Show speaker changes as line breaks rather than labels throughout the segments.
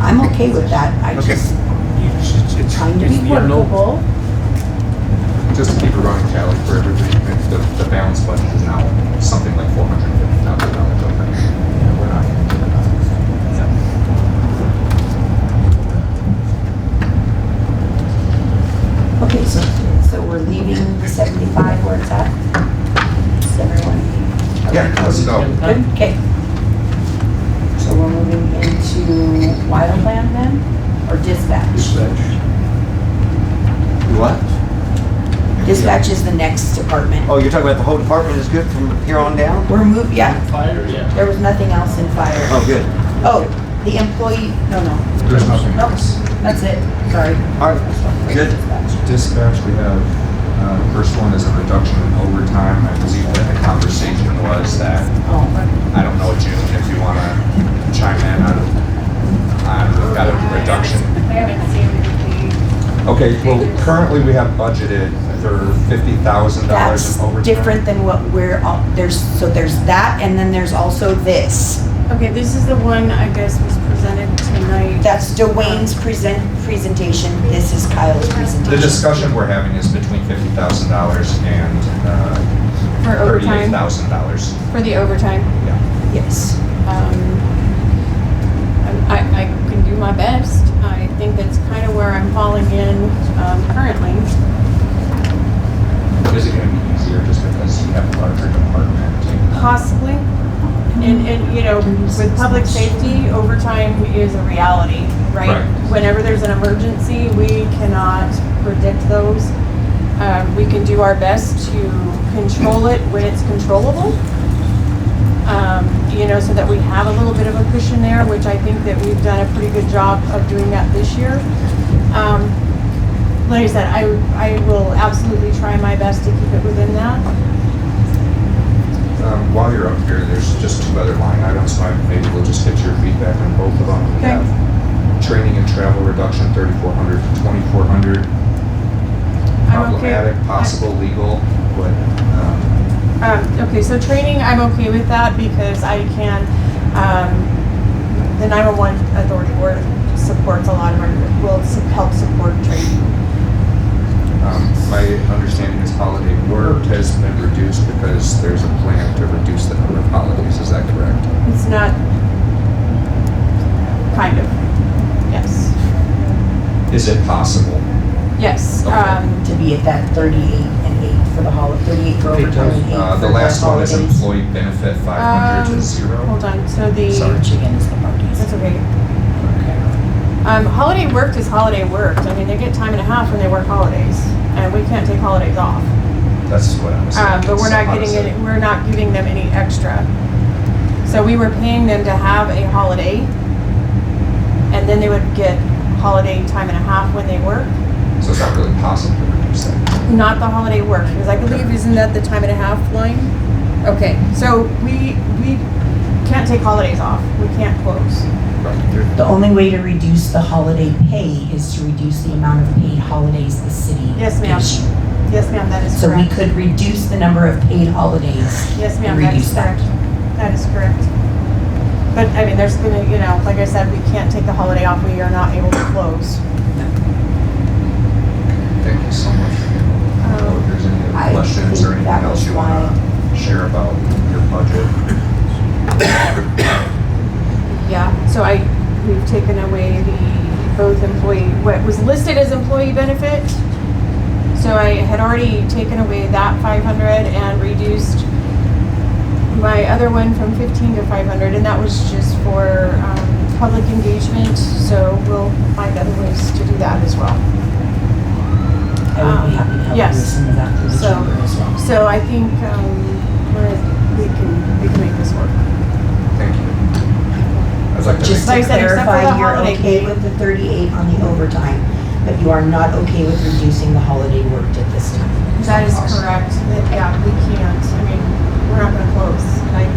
I'm okay with that. I
Okay.
just
It's- it's-
trying to
it's
be
the unknown.
workable.
Just to keep a running tally for everything, if the, the balance budget is now something like four hundred and fifty thousand dollars, okay? Yeah, we're not.
Okay, so, so we're leaving the seventyfive where it's at? Is everyone?
Yeah, let's go.
Good, okay. So we're moving into wildland then, or dispatch?
What?
Dispatch is the next department.
Oh, you're talking about the whole department is good from here on down?
We're move, yeah,
Fire, yeah.
there was nothing else in fire.
Oh, good.
Oh, the employee, no, no,
There's nothing
Nope.
else.
that's it, sorry.
All right, good.
Dispatch.
Dispatch, we have, uh, first one is a reduction in overtime. I believe that the conversation was that
Oh,
I don't know, June, if you want to chime in on, Uh, on that reduction.
We haven't seen the,
Okay, well, currently we have budgeted for fifty thousand dollars
that's
in overtime.
different than what we're, all- there's, so there's that, and then there's also this.
okay, this is the one I guess was presented tonight.
That's Dwayne's present, presentation, this is Kyle's
The
presentation.
discussion we're having is between fifty thousand dollars and, uh,
For
thirty-eight
overtime,
thousand dollars.
for the overtime,
Yeah.
Yes.
um, I'm- I, I can do my best. I think that's kind of where I'm falling in, um, currently.
Is it going to be easier just because you have a larger department?
Possibly. And, and, you know, with public safety, overtime is a reality, right?
Right.
Whenever there's an emergency, we cannot predict those. Um, we can do our best to control it when it's controllable. Um, you know, so that we have a little bit of a cushion there, which I think that we've done a pretty good job of doing that this year. Um, like I said, I, I will absolutely try my best to keep it within that.
Um, While you're up here, there's just two other line items, so I- maybe we'll just get your feedback on both of them. We
Okay.
have Training and travel reduction, thirty-four hundred to twenty-four hundred.
I'm okay.
Problematic, possible legal, but, um,
Um, okay, so training, I'm okay with that because I can, um, the 911 Authority Board supports a lot of our, will s- help support training.
um, my understanding is holiday work has been reduced because there's a plan to reduce the number of holidays, is that correct?
It's not, kind of, yes,
Is it possible?
yes.
Okay.
Um,
To be at that thirty-eight and eight for the holiday, thirty-eight for
Okay,
overtime, and eight for the
Uh,
holidays.
The last one is employee benefit, five hundred
Um,
to zero.
Hold on, so the.
Sorry.
Chicken is the
That's
parties.
okay. Um, holiday worked is holiday worked. I mean, they get time and a half when they work holidays, and we can't take holidays off.
That's what I was
Um,
thinking.
but we're
so
not
how does
getting
it-
any, we're not giving them any extra. So we were paying them to have a holiday, and then they would get holiday time and a half when they work.
So it's not really possible to reduce that.
Not the holiday work, because I believe isn't that the time and a half line? Okay, so we we can't take holidays off. We can't close.
Right. There-
The only way to reduce the holiday pay is to reduce the amount of paid holidays the city
Yes, ma'am.
gives you.
Yes, ma'am. That is
So we
correct.
could reduce the number of paid holidays.
Yes,
and
ma'am. That
reduce
is
that.
correct. That is correct. But I mean, there's gonna you know, like I said, we can't take the holiday off. We are not able to close.
Thank you so much. I
Um,
don't know If there's any
I
other questions or
think
anything
that
else
was
you want to share about your budget.
Yeah, so I, we've taken away the, both employee, what was listed as employee benefit. So I had already taken away that five hundred and reduced my other one from fifteen to five hundred, and that was just for, um, public engagement, so we'll find other ways to do that as well.
I would be happy to help you
Um, Yes.
with some of that through the
So-
chamber as well.
So I think, um, we're, we can, we can make this work.
Thank you. I'd like to
Just
make,
to
Like I said, except for the
clarify, you're
holiday
okay
pay.
with the 38 on the overtime, but you are not okay with reducing the holiday worked at this time.
That is correct, that, yeah, we can't, I mean, we're not gonna close, like.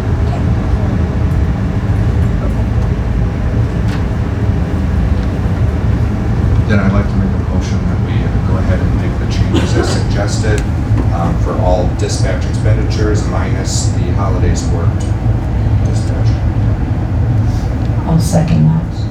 then I'd like to make a motion that we go ahead and make the changes as suggested um, for all dispatch expenditures minus the holidays worked dispatch.
I'll second that.